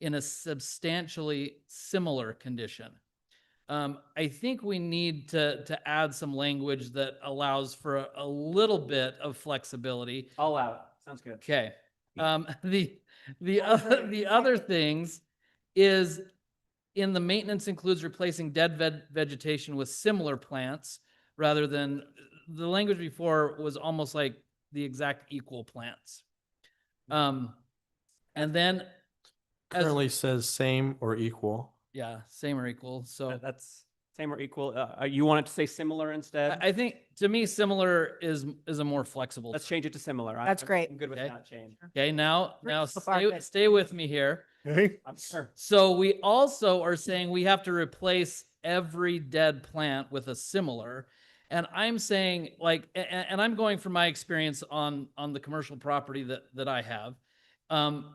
in a substantially similar condition. Um, I think we need to, to add some language that allows for a- a little bit of flexibility. All out. Sounds good. Okay, um, the, the I'll vote other, in the a other second. things is in the maintenance includes replacing dead veg- vegetation with similar plants rather than, the language before was almost like the exact equal plants. Um, and then, as- Currently says same or equal. yeah, same or equal, so. Uh, That's same or equal. Uh, uh, you want it to say similar instead? I, I think, to me, similar is, is a more flexible. Let's term. change it to similar. I- That's I'm- great. I'm good with Okay. that change. Okay, now, We're now so far stay, good. stay with me here. Okay. I'm sure. So we also are saying we have to replace every dead plant with a similar. And I'm saying like, and, and I'm going from my experience on, on the commercial property that, that I have. Um,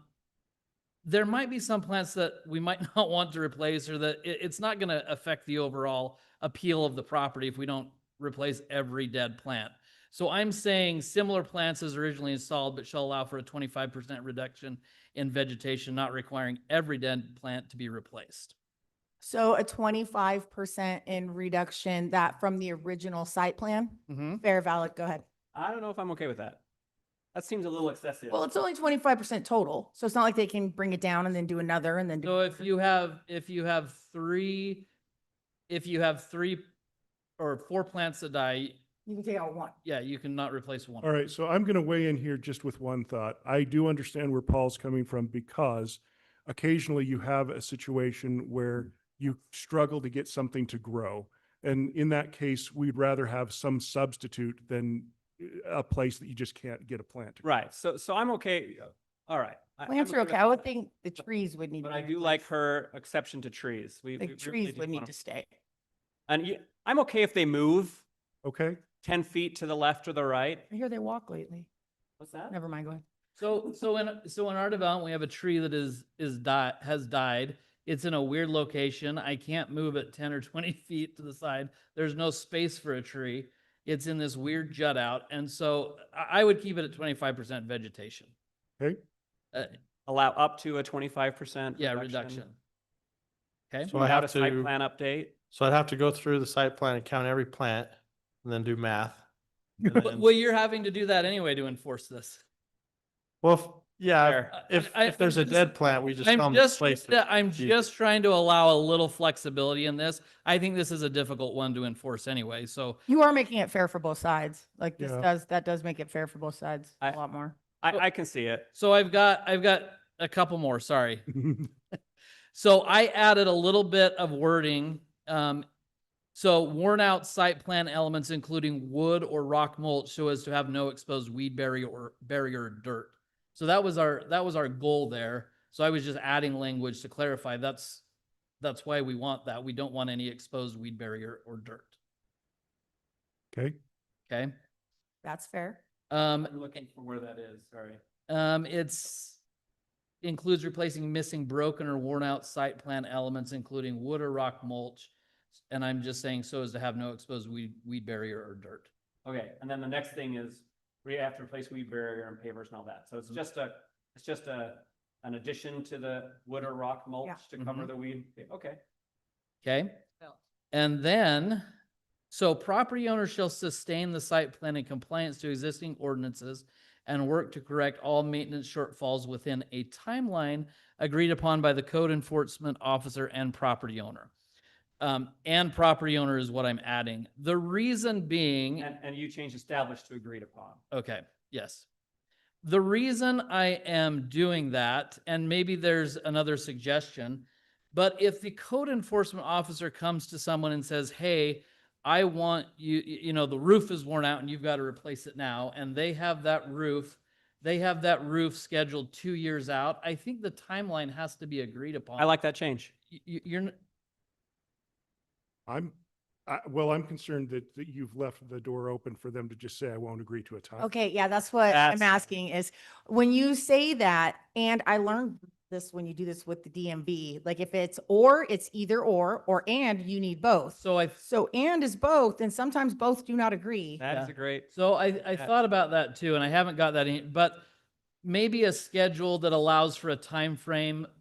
there might be some plants that we might not want to replace or that it, it's not going to affect the overall appeal of the property if we don't replace every dead plant. So I'm saying similar plants as originally installed, but shall allow for a twenty-five percent reduction in vegetation, not requiring every dead plant to be replaced. So a twenty-five percent in reduction that from the original site plan? Mm-hmm. Fair, valid, go ahead. I don't know if I'm okay with that. That seems a little excessive. Well, it's only twenty-five percent total, so it's not like they can bring it down and then do another and then do. So if another. you have, if you have three, if you have three or four plants that die, You can take out one. yeah, you cannot replace one. All right, so I'm going to weigh in here just with one thought. I do understand where Paul's coming from because occasionally you have a situation where you struggle to get something to grow. And in that case, we'd rather have some substitute than uh, a place that you just can't get a plant to grow. Right. So, so I'm okay. All right. I- I'm Plants are with okay. I would that. think the trees would need. But to I be do like replaced. her exception to trees. We. we- we Like really trees do would need wanna- to stay. And you, I'm okay if they move Okay? ten feet to the left or the right. I hear they walk lately. What's that? Never mind, go ahead. So, so in, so in our development, we have a tree that is, is die, has died. It's in a weird location. I can't move it ten or twenty feet to the side. There's no space for a tree. It's in this weird jut out. And so I, I would keep it at twenty-five percent vegetation. Okay. Uh, Allow up to a twenty-five percent. yeah, reduction. Okay, So I Without a have site to, plan update. so I'd have to go through the site plan and count every plant and then do math. and But- then- well, you're having to do that anyway to enforce this. Well, if- yeah, Fair. if, I- I- if there's a I'm just- dead plant, we just tell I'm them to just, place yeah, it. I'm Jesus. just trying to allow a little flexibility in this. I think this is a difficult one to enforce anyway, so. You are making it fair for both sides. Like this Yeah. does, that does make it fair for both sides I- a lot more. Well- I, I can see it. So I've got, I've got a couple more, sorry. So I added a little bit of wording. Um, so worn out site plan elements, including wood or rock mulch, so as to have no exposed weed barrier or barrier or dirt. So that was our, that was our goal there. So I was just adding language to clarify that's, that's why we want that. We don't want any exposed weed barrier or dirt. Okay, Okay. That's fair. Um, I'm looking for where that is, sorry. Um, it's includes replacing missing, broken or worn out site plan elements, including wood or rock mulch. And I'm just saying so as to have no exposed weed, weed barrier or dirt. Okay, and then the next thing is we have to replace weed barrier and pavers and all that. So it's just a, it's just a, an addition to the wood or rock mulch to cover Mhm. the weed. Okay. Okay? And then, so property owners shall sustain the site plan in compliance to existing ordinances and work to correct all maintenance shortfalls within a timeline agreed upon by the code enforcement officer and property owner. Um, and property owner is what I'm adding. The reason being. And, and you change established to agreed upon. Okay, yes. The reason I am doing that, and maybe there's another suggestion, but if the code enforcement officer comes to someone and says, hey, I want you, y- you know, the roof is worn out and you've got to replace it now, and they have that roof, they have that roof scheduled two years out, I think the timeline has to be agreed upon. I like that change. You, you're, n- I'm, I, well, I'm concerned that, that you've left the door open for them to just say, I won't agree to a time. Okay, yeah, that's what That's- I'm asking is when you say that, and I learned this when you do this with the DMV, like if it's or, it's either or, or and, you need both. so I, So and is both, and sometimes both do not agree. That is Yeah. a great, So I, I Yeah. thought about that too, and I haven't got that in, but maybe a schedule that allows for a time frame